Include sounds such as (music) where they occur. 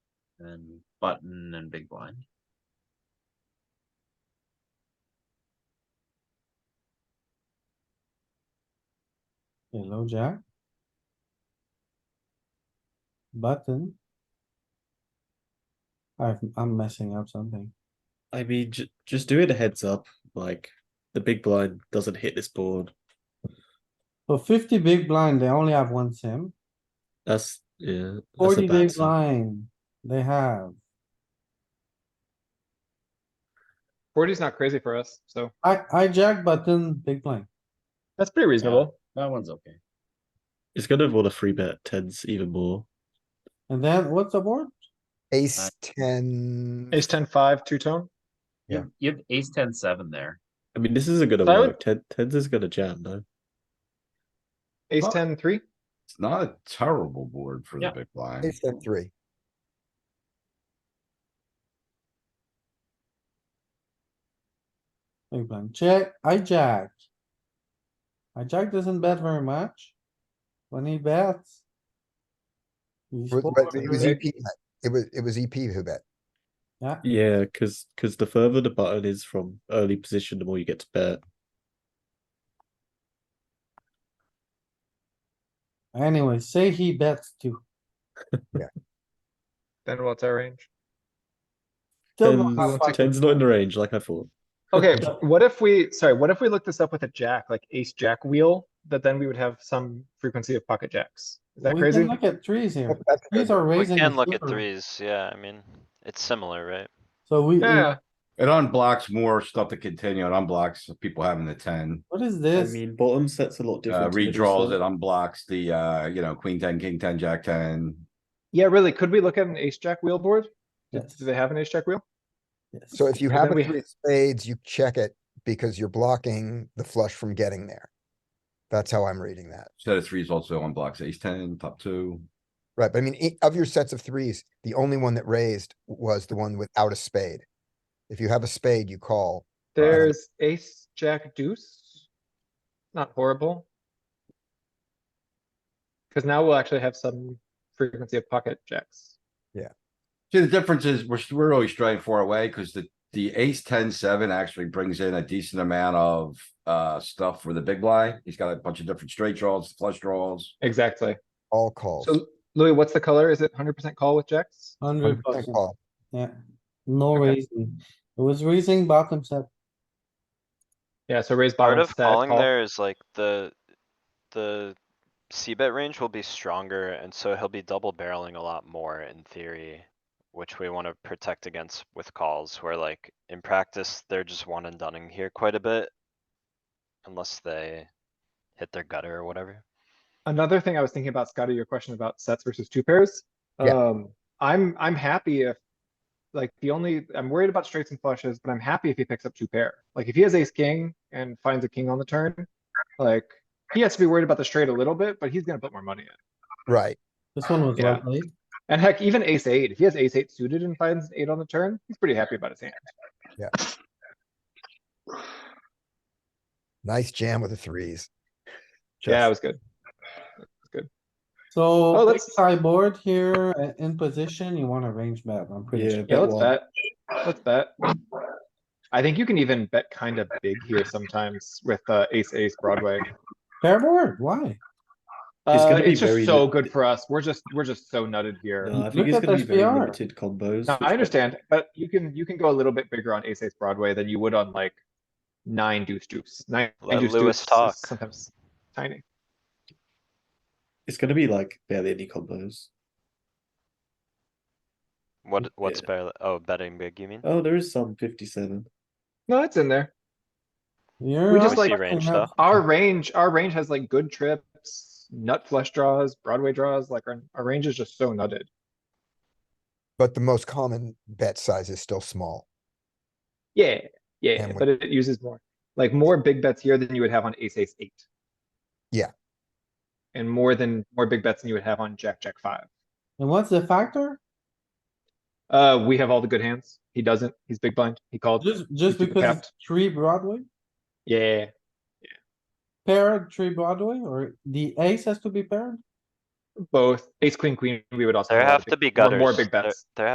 and button and big blind. Hello, jack. Button. I've, I'm messing up something. I mean, j- just do it a heads up. Like the big blind doesn't hit this board. So fifty big blind, they only have one sim. That's yeah. That's Forty a bad big sign. blind, they have. Forty's not crazy for us, so I, I jack button, big blind. that's pretty reasonable. That one's okay. It's gonna want to free bet tens even more. And then what's the board? Ace ten. Ace ten five, two tone. You have- You have ace ten seven there. I mean, this isn't gonna So I would- work. Ten, tens is gonna jam though. Ace Well- ten three. It's not a terrible board for the Yeah. big blind. Ace ten three. Big blind, check, I jack. I jack doesn't bet very much. When he bets. he But- scores but It was big. EP, bet. it was, it was E EP who bet. Yeah, because because the further the button is from early position, the more you get to bet. Anyway, say he bets too. Then what's our range? Still not Tens, fucking- tens not in the range, like I thought. Okay, what if we, sorry, what if we look this up with a jack, like ace jack wheel, that then we would have some frequency of pocket jacks? Is that We crazy? can Look at threes here. That's Threes are We raising. can the look at river. threes, yeah, I mean, it's similar, right? So we, Yeah, It unblocks more stuff to continue. It unblocks people having the ten. what is I this? mean, bottom sets a lot Uh, different. to middle redraws, set. it unblocks the, uh, you know, queen ten, king ten, jack ten. yeah, really, could we look at an ace jack wheel board? Do Yes, do they have an ace jack wheel? yes. So if you And have then a we three ha- of spades, you check it because you're blocking the flush from getting there. That's how I'm reading that. Set of threes also unblocks ace ten, top two. Right, but I mean, e- of your sets of threes, the only one that raised was the one without a spade. If you have a spade, you call. There's ace jack deuce. Not horrible. Cause now we'll actually have some frequency of pocket jacks. See, the difference is we're, we're really straying far away because the, the ace ten, seven actually brings in a decent amount of, uh, stuff for the big blind. He's got a bunch of different straight draws, flush draws. Exactly. All calls. So Louis, what's the color? Is it hundred percent call with jacks? Hundred uh, Check percent, call. yeah. No Okay. raising. It was raising bottom set. Yeah, so raise Part bottom of stat calling call. there is like the, the C bet range will be stronger and so he'll be double barreling a lot more in theory. Which we wanna protect against with calls where like in practice, they're just one and dunning here quite a bit. Unless they hit their gutter or whatever. Another thing I was thinking about, Scotty, your question about sets versus two pairs. Yeah. Um, I'm, I'm happy if, like, the only, I'm worried about straights and flushes, but I'm happy if he picks up two pair. Like, if he has ace king and finds a king on the turn, like, he has to be worried about the straight a little bit, but he's gonna put more money in. Right, This one was Yeah. well played. And heck, even ace eight, if he has ace eight suited and finds an eight on the turn, he's pretty happy about his hand. nice jam with the threes. Yeah, it Just- was good. Oh, So big let's- sideboard here uh, in position, you wanna range bet, I'm pretty Yeah, sure. Yeah, bet let's one. bet. Let's bet. I think you can even bet kind of big here sometimes with, uh, ace, ace, Broadway. Pair board, why? It's Uh, gonna be it's just very so lim- good for us. We're just, we're just so nutted here. No, I think Look it's at going to be very SPR. limited combos. No, which I makes- understand, but you can, you can go a little bit bigger on ace ace Broadway than you would on like nine deuce deuce, nine Let deuce Lewis deuce is talk. sometimes tiny. It's going to be like barely any combos. What, what's Yeah. barely, oh, betting big, you mean? Oh, there is some 57. No, it's in there. You're. We not just like- fucking Range, up. though. (laughs) Our range, our range has like good trips, nut flush draws, Broadway draws, like our, our range is just so nutted. But the most common bet size is still small. Yeah, yeah, And we- but it it uses more, like more big bets here than you would have on ace ace eight. Yeah. And more than, more big bets than you would have on jack, jack five. And what's the factor? Uh, we have all the good hands. He doesn't. He's big blind. He called. Just, just keep it because it's capped. three Broadway, Yeah, paired three Broadway, or the ace has to be paired? both ace, queen, queen. We would also. There all the have big- to be more- gutters. More big There- bets. There